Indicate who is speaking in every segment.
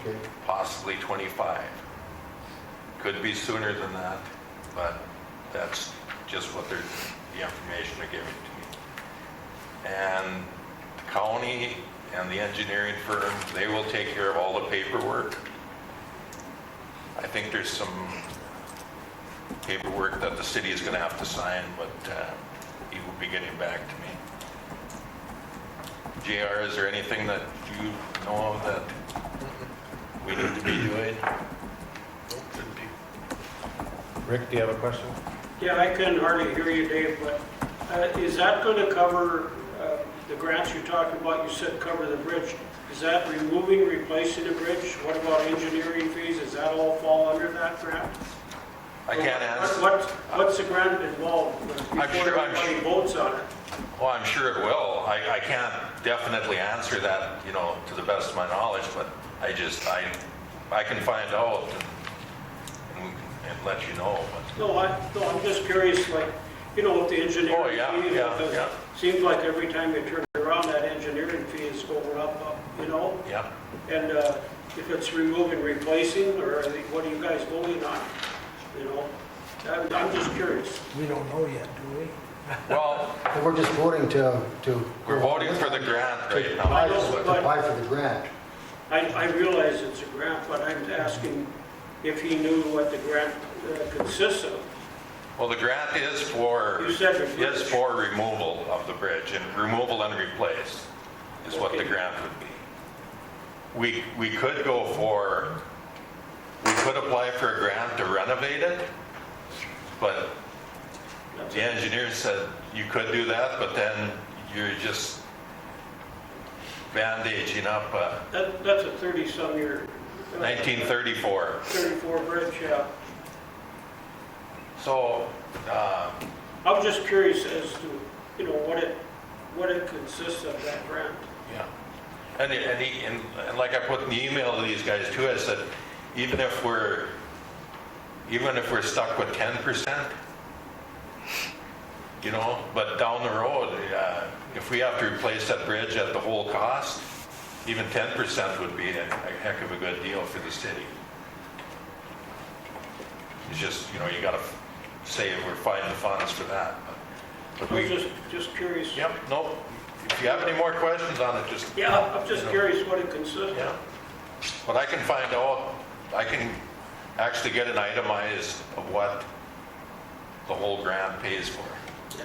Speaker 1: Okay.
Speaker 2: possibly 25. Could be sooner than that, but that's just what they're, the information they're giving to me. And the county and the engineering firm, they will take care of all the paperwork. I think there's some paperwork that the city is going to have to sign, but uh, he will be getting back to me. JR, is there anything that you know of that we need to be doing?
Speaker 1: Rick, do you have a question?
Speaker 3: Yeah, I couldn't hardly hear you, Dave, but uh, is that going to cover uh, the grants you talked about? You said cover the bridge. Is that removing, replacing the bridge? What about engineering fees? Does that all fall under that grant?
Speaker 2: I can't answer,
Speaker 3: What- What's, what's the grant involved with
Speaker 2: I'm sure-
Speaker 3: before
Speaker 2: I'm sure-
Speaker 3: everybody votes on it?
Speaker 2: well, I'm sure it will. I, I can't definitely answer that, you know, to the best of my knowledge, but I just, I, I can find out and, and we can- and let you know, but
Speaker 3: No, I, no, I'm just curious, like, you know, what the
Speaker 2: Oh,
Speaker 3: engineering
Speaker 2: yeah,
Speaker 3: fee is.
Speaker 2: yeah,
Speaker 3: because
Speaker 2: yeah.
Speaker 3: Seems like every time you turn around, that engineering fee is going up, up, you know?
Speaker 2: yeah.
Speaker 3: And uh, if it's removing, replacing, or are they- what are you guys voting on? You know, I'm I'm just curious.
Speaker 4: We don't know yet, do we?
Speaker 2: Well,
Speaker 5: And We're just voting to, to.
Speaker 2: we're voting for the grant right now.
Speaker 3: I know,
Speaker 5: To
Speaker 2: but-
Speaker 5: apply for the grant.
Speaker 3: I, I realize it's a grant, but I'm asking if he knew what the grant uh, consists of.
Speaker 2: Well, the grant is for,
Speaker 3: You said the
Speaker 2: is
Speaker 3: bridge.
Speaker 2: for removal of the bridge, and removal and replace is what the
Speaker 3: Okay.
Speaker 2: grant would be. We, we could go for, we could apply for a grant to renovate it, but the engineer said you could do that, but then you're just bandaging up uh,
Speaker 3: That, that's a 30-some year. uh,
Speaker 2: 1934.
Speaker 3: 34 bridge, yeah.
Speaker 2: So, uh,
Speaker 3: I was just curious as to, you know, what it, what it consists of, that grant.
Speaker 2: Yeah. And, it- and, he- and and like I put in the email to these guys too, I said, even if we're, even if we're stuck with ten percent, you know, but down the road, uh, if we have to replace that bridge at the whole cost, even ten percent would be a a heck of a good deal for the city. It's just, you know, you gotta say we're finding the funds for that. but- But
Speaker 3: I was
Speaker 2: we,
Speaker 3: just, just curious.
Speaker 2: yep, no, if you have any more questions on it, just
Speaker 3: Yeah, I'm just curious what it consists of.
Speaker 2: yeah. But I can find out, I can actually get an itemized of what the whole grant pays for.
Speaker 3: Yeah.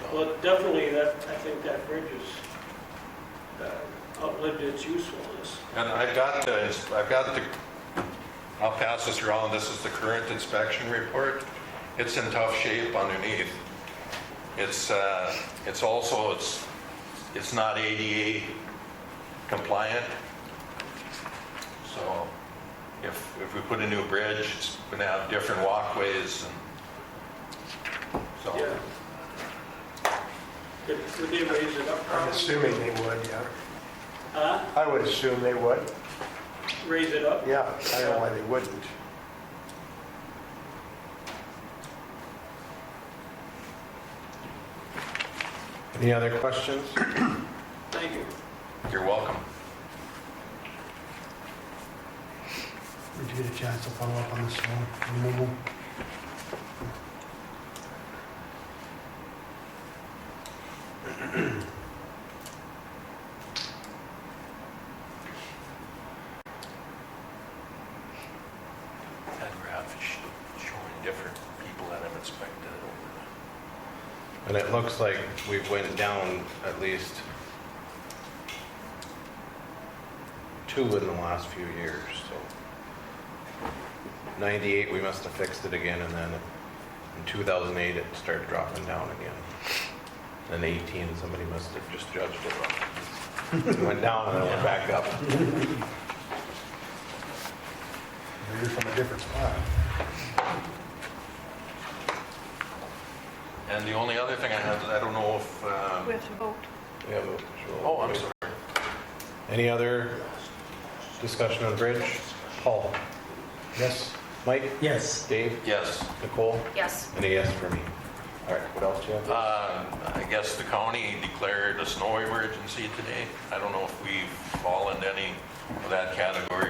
Speaker 2: So,
Speaker 3: Well, definitely, that, I think that bridge is uh, outlived its usefulness.
Speaker 2: And I've got the, I've got the, I'll pass this around, this is the current inspection report. It's in tough shape underneath. It's, uh, it's also, it's, it's not ADA compliant. So if, if we put a new bridge, it's gonna have different walkways and
Speaker 3: Yeah.
Speaker 4: Oh.
Speaker 2: so.
Speaker 3: Could could they raise it up?
Speaker 4: I'm assuming they would, yeah.
Speaker 3: Huh?
Speaker 4: I would assume they would,
Speaker 3: Raise it up?
Speaker 4: yeah. I don't know why they wouldn't.
Speaker 1: Any other questions?
Speaker 3: Thank you.
Speaker 2: You're welcome.
Speaker 5: Did you get a chance to follow up on the snow removal?
Speaker 2: That graph is sh- showing different people that have inspected it over the
Speaker 1: And it looks like we've went down at least two in the last few years, so. 98, we must have fixed it again, and then in 2008, it started dropping down again. Then 18, somebody must have just judged it wrong. It Went down and then it went back up.
Speaker 5: Maybe from a different spot.
Speaker 2: And the only other thing I had, I don't know if,
Speaker 6: We
Speaker 2: uh,
Speaker 6: have to vote.
Speaker 1: We have a-
Speaker 2: oh, I'm sorry.
Speaker 1: Any other discussion on bridge? Paul? Yes. Mike?
Speaker 4: Yes.
Speaker 1: Dave?
Speaker 2: Yes,
Speaker 1: Nicole?
Speaker 6: Yes.
Speaker 1: And a yes for me. All right, what else do you have?
Speaker 2: uh, I guess the county declared a snow emergency today. I don't know if we've fallen any that category